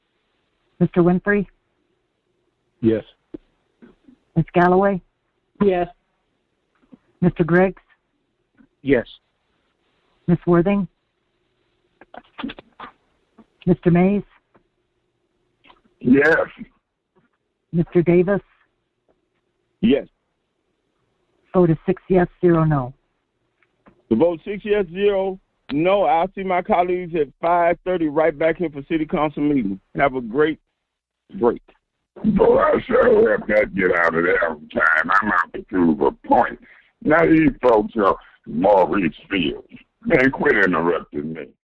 Mr. Winfrey? Yes. Ms. Galloway? Yes. Mr. Griggs? Yes. Ms. Worthing? Mr. Mays? Yes. Mr. Davis? Yes. Vote is six yes, zero no. The vote six yes, zero no. I'll see my colleagues at five thirty right back here for city council meeting. Have a great break. Boy, I sure helped that get out of there on time. I'm out to prove a point. Now these folks are Maurice Fields. Man, quit interrupting me.